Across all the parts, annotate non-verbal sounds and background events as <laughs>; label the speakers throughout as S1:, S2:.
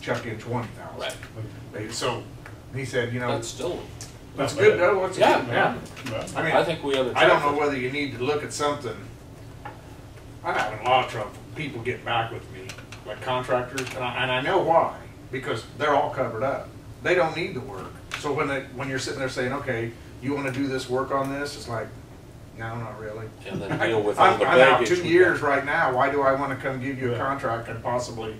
S1: Chuck in twenty thousand.
S2: Right.
S1: They- So, he said, you know,
S2: That's still,
S1: that's good, though, what's
S2: Yeah.
S1: good?
S2: Yeah.
S1: I
S2: I
S1: mean,
S2: think we have a.
S1: I don't know whether you need to look at something. I'm having a lot of trouble, people getting back with me, like contractors, and I, and I know why, because they're all covered up. They don't need the work. So when they, when you're sitting there saying, okay, you wanna do this work on this, it's like, no, not really.
S2: And then deal with all
S1: I'm,
S2: the
S1: I'm out
S2: baggage.
S1: two
S2: we
S1: years
S2: got.
S1: right now, why do I wanna come give you a
S3: Yeah.
S1: contract and possibly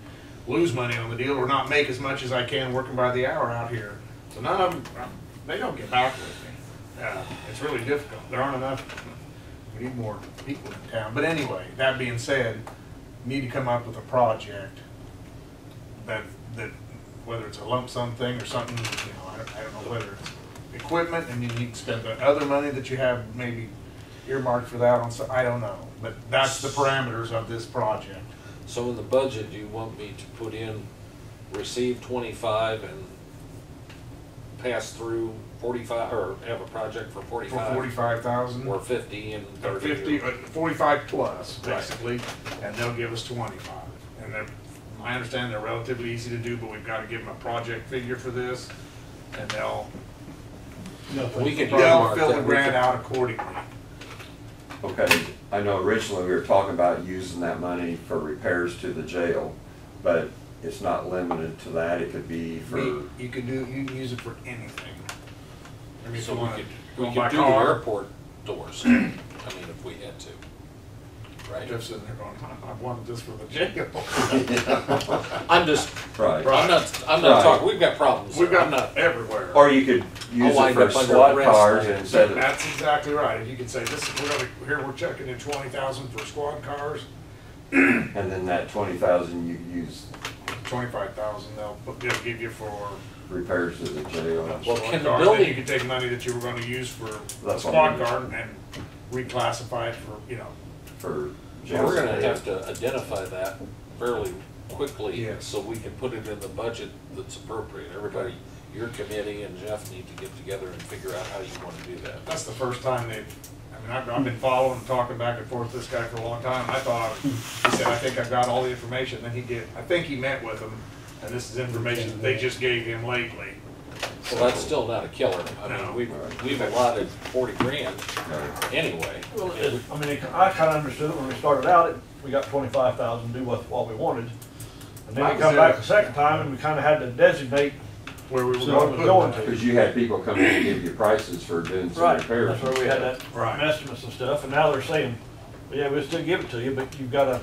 S1: lose money on the deal or not make as much as I can working by the hour out here? So none of them, um, they don't get back with me. Uh, it's really difficult, there aren't enough, we need more people in town, but anyway, that being said, need to come up with a project that, that, whether it's a lump sum thing or something, you know, I don't, I don't know whether it's equipment, and you need to spend the other money that you have maybe earmarked for that on, so, I don't know, but that's the parameters of this project.
S2: So in the budget, do you want me to put in, receive twenty-five and pass through forty-five, or have a project for
S1: For
S2: forty-five?
S1: forty-five thousand,
S2: Or fifty and
S1: or
S2: thirty?
S1: fifty,
S2: or-
S1: uh, forty-five plus,
S2: Right.
S1: basically, and they'll give us twenty-five. And they're, I understand they're relatively easy to do, but we've gotta give them a project figure for this, and they'll,
S2: We can
S1: they'll
S2: earmark
S1: fill the
S2: that, we
S1: grant
S2: can,
S1: out accordingly.
S4: Okay, I know originally we were talking about using that money for repairs to the jail, but it's not limited to that, it could be for,
S1: We- You can do, you can use it for anything. I mean, if
S2: so
S1: you
S2: we
S1: wanna
S2: could,
S1: go
S2: we
S1: buy
S2: could do the
S1: car,
S2: airport doors, I mean, if we had to. Right?
S1: Jeff's sitting there going, I wanted this for the
S2: <laughs>
S1: jail.
S2: I'm just,
S4: <laughs> right.
S2: I'm not, I'm not
S4: Right.
S2: talking, we've got problems
S1: We've
S2: here, I'm
S1: got
S2: not,
S1: everywhere.
S4: Or you could use
S2: I'll wind
S4: it for
S2: up under
S4: squad
S2: arrest.
S4: cars instead of,
S1: That's exactly right. If you could say, this, we're gonna, here, we're checking in twenty thousand for squad cars,
S4: and then that twenty thousand you use
S1: twenty-five thousand, they'll, put- they'll give you for.
S4: repairs to the jail.
S2: Well,
S1: squad
S2: can the
S1: car. Then
S2: building-
S1: You could take money that you were gonna use for the
S4: That's what I
S1: squad
S4: mean.
S1: car and reclassify it for, you know,
S4: for jail.
S2: we're gonna
S4: space.
S2: have to identify that fairly quickly,
S1: Yes.
S2: so we can put it in the budget that's appropriate. Everybody, your committee and Jeff need to get together and figure out how you wanna do that.
S1: that's the first time they've, I mean, I've, I've been following, talking back and forth with this guy for a long time, and I thought, he said, I think I got all the information, then he did, I think he met with them, and this is information that they just gave him lately.
S2: Well, that's still not a killer, I
S1: No.
S2: mean, we've, we've allotted forty grand
S4: Right.
S2: anyway.
S3: Well, it- I mean, it- I kinda understood it when we started out, it- we got twenty-five thousand, do what, what we wanted. And then
S1: Mine
S3: we
S1: was
S3: come
S1: there.
S3: back the second time and we kinda had to designate,
S1: Where we were
S3: So
S1: going
S3: we're
S1: to put
S3: going
S1: them.
S3: to.
S4: Cause you had people come in and give you prices for doing some
S3: right,
S4: repairs.
S3: that's where we had that
S1: Right.
S3: estimates and stuff, and now they're saying, yeah, we'll still give it to you, but you've gotta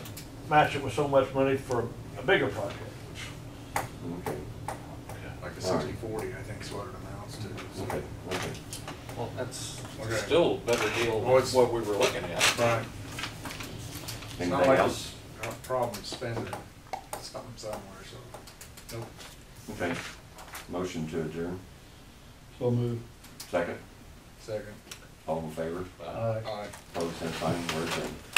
S3: match it with so much money for a bigger project.
S4: Okay,
S1: Like a sixty, forty, I think is what it amounts to. so.
S4: okay, okay.
S2: Well, that's
S1: Okay.
S2: still a better deal
S1: Well,
S2: than
S1: it's-
S2: what we were looking at.
S1: Right. It's not
S4: Anything
S1: like
S4: else?
S1: it's a problem spending something somewhere, so. Nope.
S4: Okay. Motion to adjourn,
S5: So moved.
S4: second,
S1: Second.
S4: all in favor?
S2: Uh,
S5: Aye.
S1: Aye.
S4: Opposed, same sign, we're adjourned.